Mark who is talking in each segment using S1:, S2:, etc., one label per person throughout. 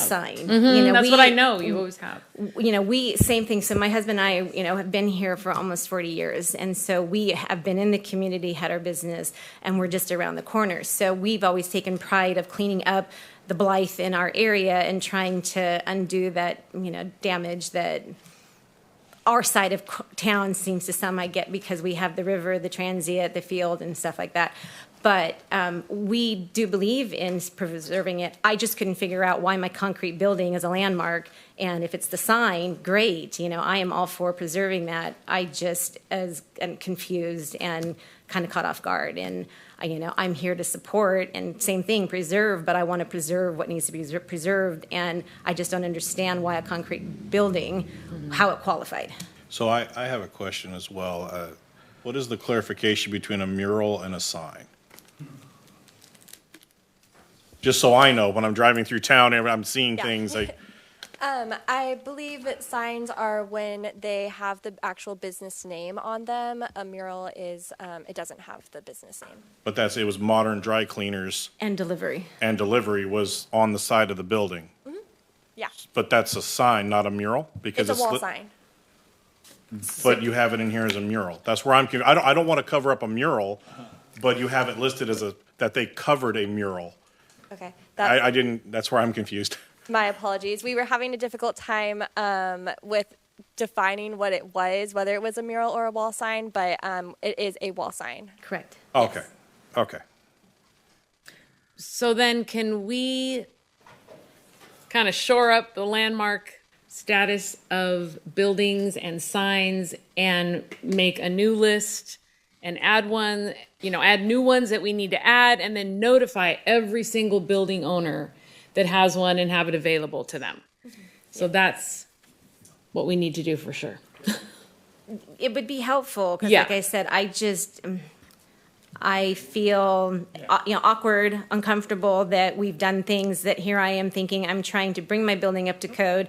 S1: sign. You know,
S2: Mm-hmm. That's
S1: we-
S2: what I know. You always have.
S1: you know, we same thing. So my husband and I, you know, have been here for almost 40 years. And so we have been in the community, had our business, and we're just around the corner. So we've always taken pride of cleaning up the Blythe in our area and trying to undo that, you know, damage that our side of c- town seems to some I get because we have the river, the transient, the field, and stuff like that. But um, we do believe in preserving it. I just couldn't figure out why my concrete building is a landmark, and if it's the sign, great. You know, I am all for preserving that. I just as am confused and kind of caught off guard. And I- you know, I'm here to support and same thing, preserve. But I want to preserve what needs to be preser- preserved, and I just don't understand why a concrete building, how it qualified.
S3: So I, I have a question as well. Uh, What is the clarification between a mural and a sign? Just so I know, when I'm driving through town, and I'm seeing
S4: Yeah.
S3: things like,
S4: Um, I believe that signs are when they have the actual business name on them. A mural is, um, it doesn't have the business name.
S3: but that's, it was modern dry cleaners
S1: And delivery.
S3: and delivery was on the side of the building.
S4: Yeah.
S3: But that's a sign, not a mural? because
S4: It's a wall
S3: li-
S4: sign.
S3: But you have it in here as a mural. That's where I'm, conf- I don't, I don't want to cover up a mural, but you have it listed as a, that they covered a mural.
S4: Okay.
S3: I,
S4: That,
S3: I didn't, that's where I'm confused.
S4: my apologies. We were having a difficult time um, with defining what it was, whether it was a mural or a wall sign, but um, it is a wall sign.
S1: Correct.
S3: Okay, okay.
S2: So then, can we kind of shore up the landmark status of buildings and signs and make a new list and add one, you know, add new ones that we need to add and then notify every single building owner that has one and have it available to them? So that's what we need to do for sure.
S1: It would be helpful because,
S2: Yeah.
S1: like I said, I just um, I feel uh, you know awkward, uncomfortable that we've done things that here I am thinking I'm trying to bring my building up to code.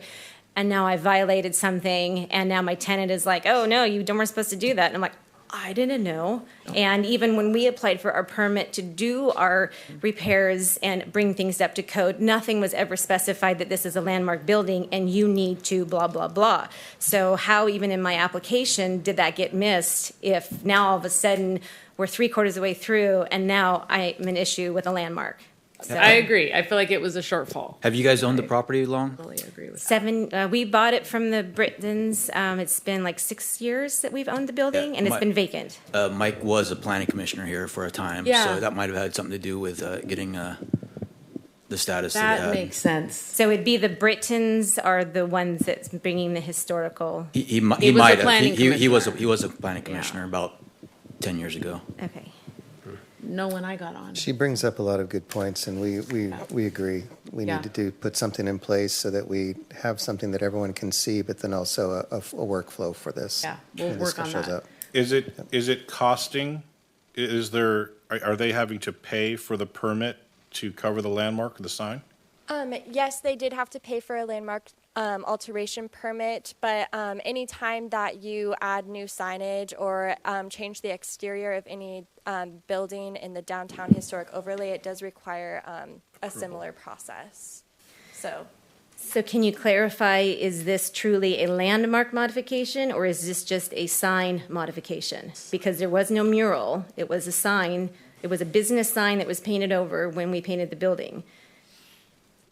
S1: And now I violated something, and now my tenant is like, "Oh no, you weren't supposed to do that." And I'm like, "I didn't know." And even when we applied for our permit to do our repairs and bring things up to code, nothing was ever specified that this is a landmark building and you need to blah blah blah. So how even in my application did that get missed? If now all of a sudden we're three quarters of the way through, and now I'm an issue with a landmark. So
S2: I agree. I feel like it was a shortfall.
S5: Have you guys owned the property long?
S2: Totally agree with that.
S1: seven, uh, we bought it from the Britons. Um, it's been like six years that we've owned the building,
S5: Yeah,
S1: and it's
S5: my-
S1: been vacant.
S5: Uh, Mike was a planning commissioner here for a time,
S2: Yeah.
S5: so that might have had something to do with uh, getting uh, the status that it
S2: That
S5: had.
S2: makes sense.
S1: So it'd be the Britons are the ones that's bringing the historical.
S5: He, he, mi-
S2: He
S5: he
S2: was a
S5: might have.
S2: planning
S5: He, he, he was a,
S2: commissioner.
S5: he was a planning commissioner about 10 years ago.
S1: Okay.
S2: No one I got on.
S6: She brings up a lot of good points, and we, we, we agree. We
S2: Yeah.
S6: need to do, put something in place so that we have something that everyone can see, but then also a, a f- a workflow for this.
S2: Yeah, we'll
S6: when this
S2: work on
S6: shows
S2: that.
S6: up.
S3: Is it, is it costing, i- is there, are are they having to pay for the permit to cover the landmark, the sign?
S4: Um, yes, they did have to pay for a landmark um, alteration permit, but um, any time that you add new signage or um, change the exterior of any um, building in the downtown historic overlay, it does require um, a similar process. So,
S1: So can you clarify? Is this truly a landmark modification, or is this just a sign modification? Because there was no mural. It was a sign. It was a business sign that was painted over when we painted the building.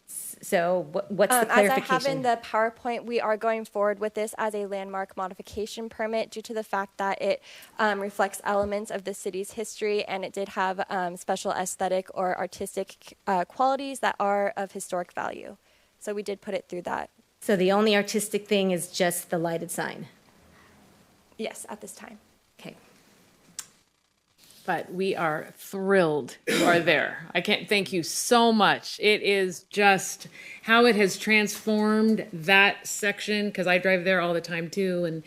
S1: S- So what, what's
S4: um,
S1: the
S4: as I
S1: clarification?
S4: have in the PowerPoint, we are going forward with this as a landmark modification permit due to the fact that it um, reflects elements of the city's history and it did have um, special aesthetic or artistic uh, qualities that are of historic value. So we did put it through that,
S1: So the only artistic thing is just the lighted sign.
S4: yes, at this time.
S1: Okay.
S2: but we are thrilled you are there. I can't thank you so much. It is just how it has transformed that section because I drive there all the time too, and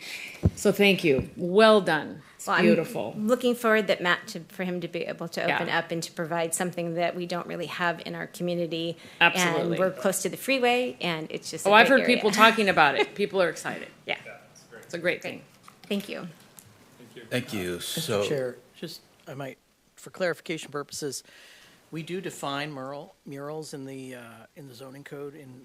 S2: so thank you. Well done. It's
S1: Well, I'm
S2: beautiful.
S1: Looking forward that Matt to, for him to be able to open
S2: Yeah.
S1: up and to provide something that we don't really have in our community.
S2: Absolutely.
S1: And we're close to the freeway, and it's just. a
S2: oh, I've
S1: great
S2: heard
S1: area.
S2: people talking about it. People are excited.
S1: Yeah.
S2: It's a great thing.
S1: Thank you.
S5: Thank you. So,
S7: Chair, just, I might, for clarification purposes, we do define mural, murals in the, uh, in the zoning code in